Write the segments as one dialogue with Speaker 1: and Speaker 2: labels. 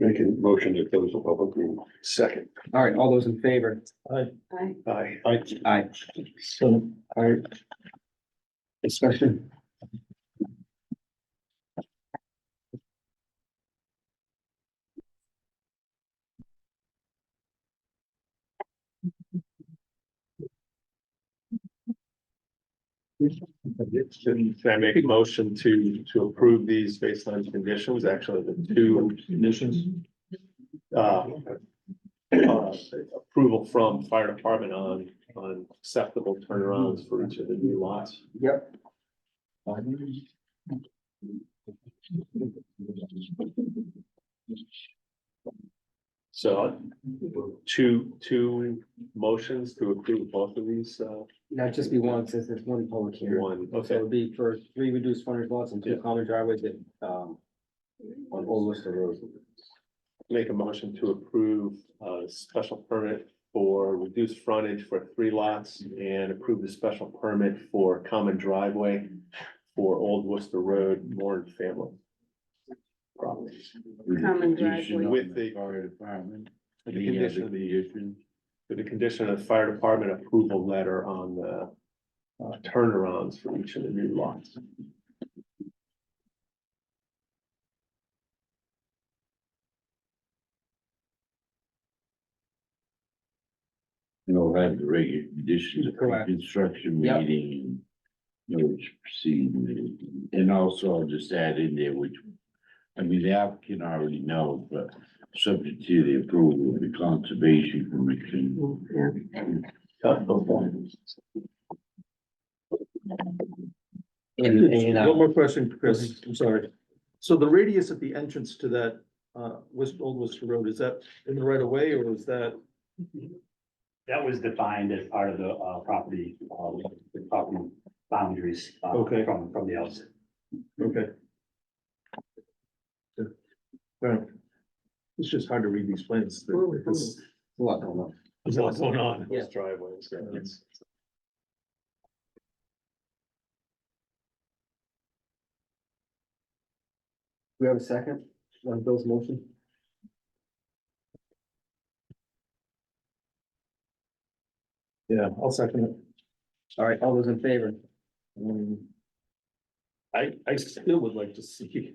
Speaker 1: making motion to close the public hearing. Second.
Speaker 2: All right, all those in favor?
Speaker 3: Aye.
Speaker 1: Aye. Aye.
Speaker 2: Aye.
Speaker 4: So
Speaker 2: All right. Discussion.
Speaker 5: Can I make a motion to, to approve these based on conditions, actually the two
Speaker 4: conditions,
Speaker 5: uh, uh, approval from fire department on, on acceptable turnarounds for each of the new lots.
Speaker 2: Yep.
Speaker 5: So two, two motions to approve both of these, uh,
Speaker 2: Not just be one, since it's one public hearing.
Speaker 5: one,
Speaker 2: So
Speaker 5: okay,
Speaker 2: it'd be for three reduced frontage lots and two
Speaker 5: Yeah.
Speaker 2: common driveways that, um, on Old Worcester Road.
Speaker 5: make a motion to approve a special permit for reduced frontage for three lots and approve the special permit for common driveway for Old Worcester Road, Warren family. Property.
Speaker 3: Common driveway.
Speaker 5: With the-
Speaker 4: Fire department.
Speaker 5: The
Speaker 4: Any other
Speaker 5: condition of the-
Speaker 4: conditions?
Speaker 5: with the condition of fire department approval letter on the uh, turnarounds for each of the new lots.
Speaker 4: You know, have the regular conditions of
Speaker 2: Correct.
Speaker 4: construction
Speaker 2: Yep.
Speaker 4: meeting. You know, which proceed, and also I'll just add in there, which, I mean, the applicant already knows, but subject to the approval of the conservation commission.
Speaker 5: Uh, okay.
Speaker 2: And, and,
Speaker 6: One
Speaker 2: uh,
Speaker 6: more question, Chris, I'm sorry. So the radius at the entrance to that, uh, West, Old Worcester Road, is that in the right of way or is that?
Speaker 7: That was defined as part of the uh, property, uh, the property boundaries. uh,
Speaker 6: Okay.
Speaker 7: From, from the outset.
Speaker 6: Okay. Well, It's just hard to read these plans. There's
Speaker 2: a lot going on.
Speaker 6: there's a lot going on.
Speaker 2: Yeah.
Speaker 5: Driveways, yeah, it's-
Speaker 2: we have a second on Bill's motion?
Speaker 6: Yeah, I'll second it. Um,
Speaker 2: All right, all those in favor?
Speaker 6: I, I still would like to see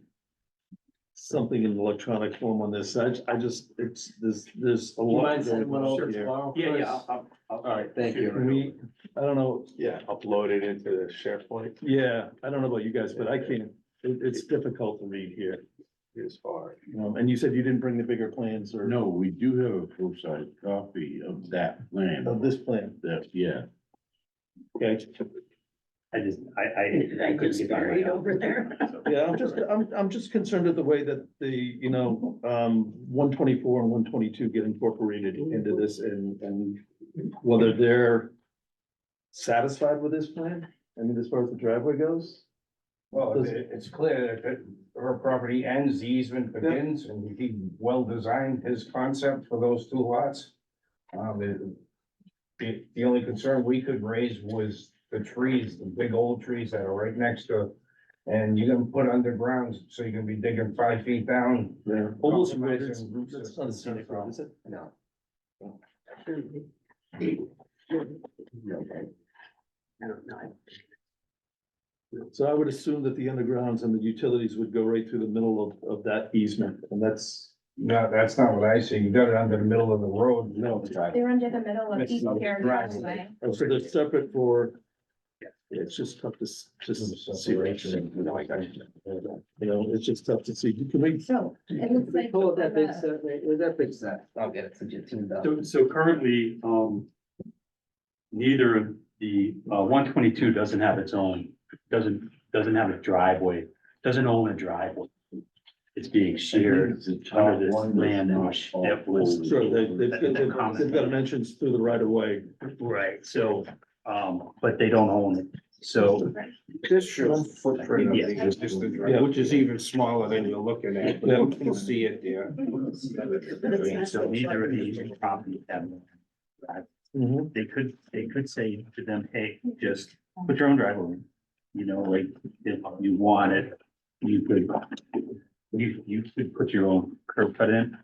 Speaker 6: something in electronic form on this. I, I just, it's, there's, there's a lot. going on here.
Speaker 7: Yeah, yeah. All right.
Speaker 2: Thank
Speaker 6: Can
Speaker 2: you.
Speaker 6: we, I don't know,
Speaker 5: Yeah, uploaded into the SharePoint
Speaker 6: yeah, I don't know about you guys, but I can't, it, it's difficult to read here.
Speaker 5: is far.
Speaker 6: Um, and you said you didn't bring the bigger plans or
Speaker 4: No, we do have a full-size copy of that plan,
Speaker 6: of this plan.
Speaker 4: that, yeah.
Speaker 6: Okay,
Speaker 7: I just, I, I.
Speaker 3: I
Speaker 7: couldn't
Speaker 3: just
Speaker 7: see that
Speaker 3: buried
Speaker 7: right now.
Speaker 3: over there.
Speaker 7: So-
Speaker 6: yeah, I'm just, I'm, I'm just concerned at the way that the, you know, um, one twenty-four and one twenty-two get incorporated into this and, and whether they're satisfied with this plan, I mean, as far as the driveway goes.
Speaker 8: Well, it- it's clear that her property ends, the easement begins, and he well designed his concept for those two lots. Um, the- the, the only concern we could raise was the trees, the big old trees that are right next to. And you're gonna put underground, so you're gonna be digging five feet down.
Speaker 6: Yeah. Almost,
Speaker 8: Compromising root
Speaker 6: that's not a scenic road, is it?
Speaker 2: No.
Speaker 3: I don't know.
Speaker 6: So I would assume that the undergrounds and the utilities would go right through the middle of, of that easement, and that's,
Speaker 8: No, that's not what I see. You got it under the middle of the road.
Speaker 6: no,
Speaker 9: They're under the middle of
Speaker 8: That's
Speaker 9: each
Speaker 8: not
Speaker 9: pair of
Speaker 8: right.
Speaker 9: driveway.
Speaker 6: so they're separate for. It's just tough to, s- to s- see, right?
Speaker 8: Separation.
Speaker 6: you know, it's just tough to see, can we,
Speaker 9: So it looks like.
Speaker 2: Pull up that big
Speaker 9: the-
Speaker 2: set, wait, where's that big set? I'll get it, since you tuned up.
Speaker 7: So, so currently, um, neither of the, uh, one twenty-two doesn't have its own, doesn't, doesn't have a driveway, doesn't own a driveway. It's being shared.
Speaker 4: It's the
Speaker 7: under
Speaker 4: top
Speaker 7: this
Speaker 4: one that's
Speaker 7: land and
Speaker 4: not
Speaker 7: sh-
Speaker 4: all
Speaker 7: that was-
Speaker 4: full.
Speaker 6: sure, they, they've,
Speaker 7: That's a
Speaker 6: they've
Speaker 7: comment.
Speaker 6: they've got dimensions through the right of way.
Speaker 7: Right. So, um, but they don't own it. So
Speaker 8: This shows footprint
Speaker 7: of the
Speaker 8: existing
Speaker 6: driveway.
Speaker 8: Which is even smaller than you're looking at, but you can see it there.
Speaker 3: Yeah.
Speaker 7: So neither of these properties have. They could, they could say to them, hey, just put your own driveway. in." You know, like, if you want it, you could, you, you could put your own curb cut in,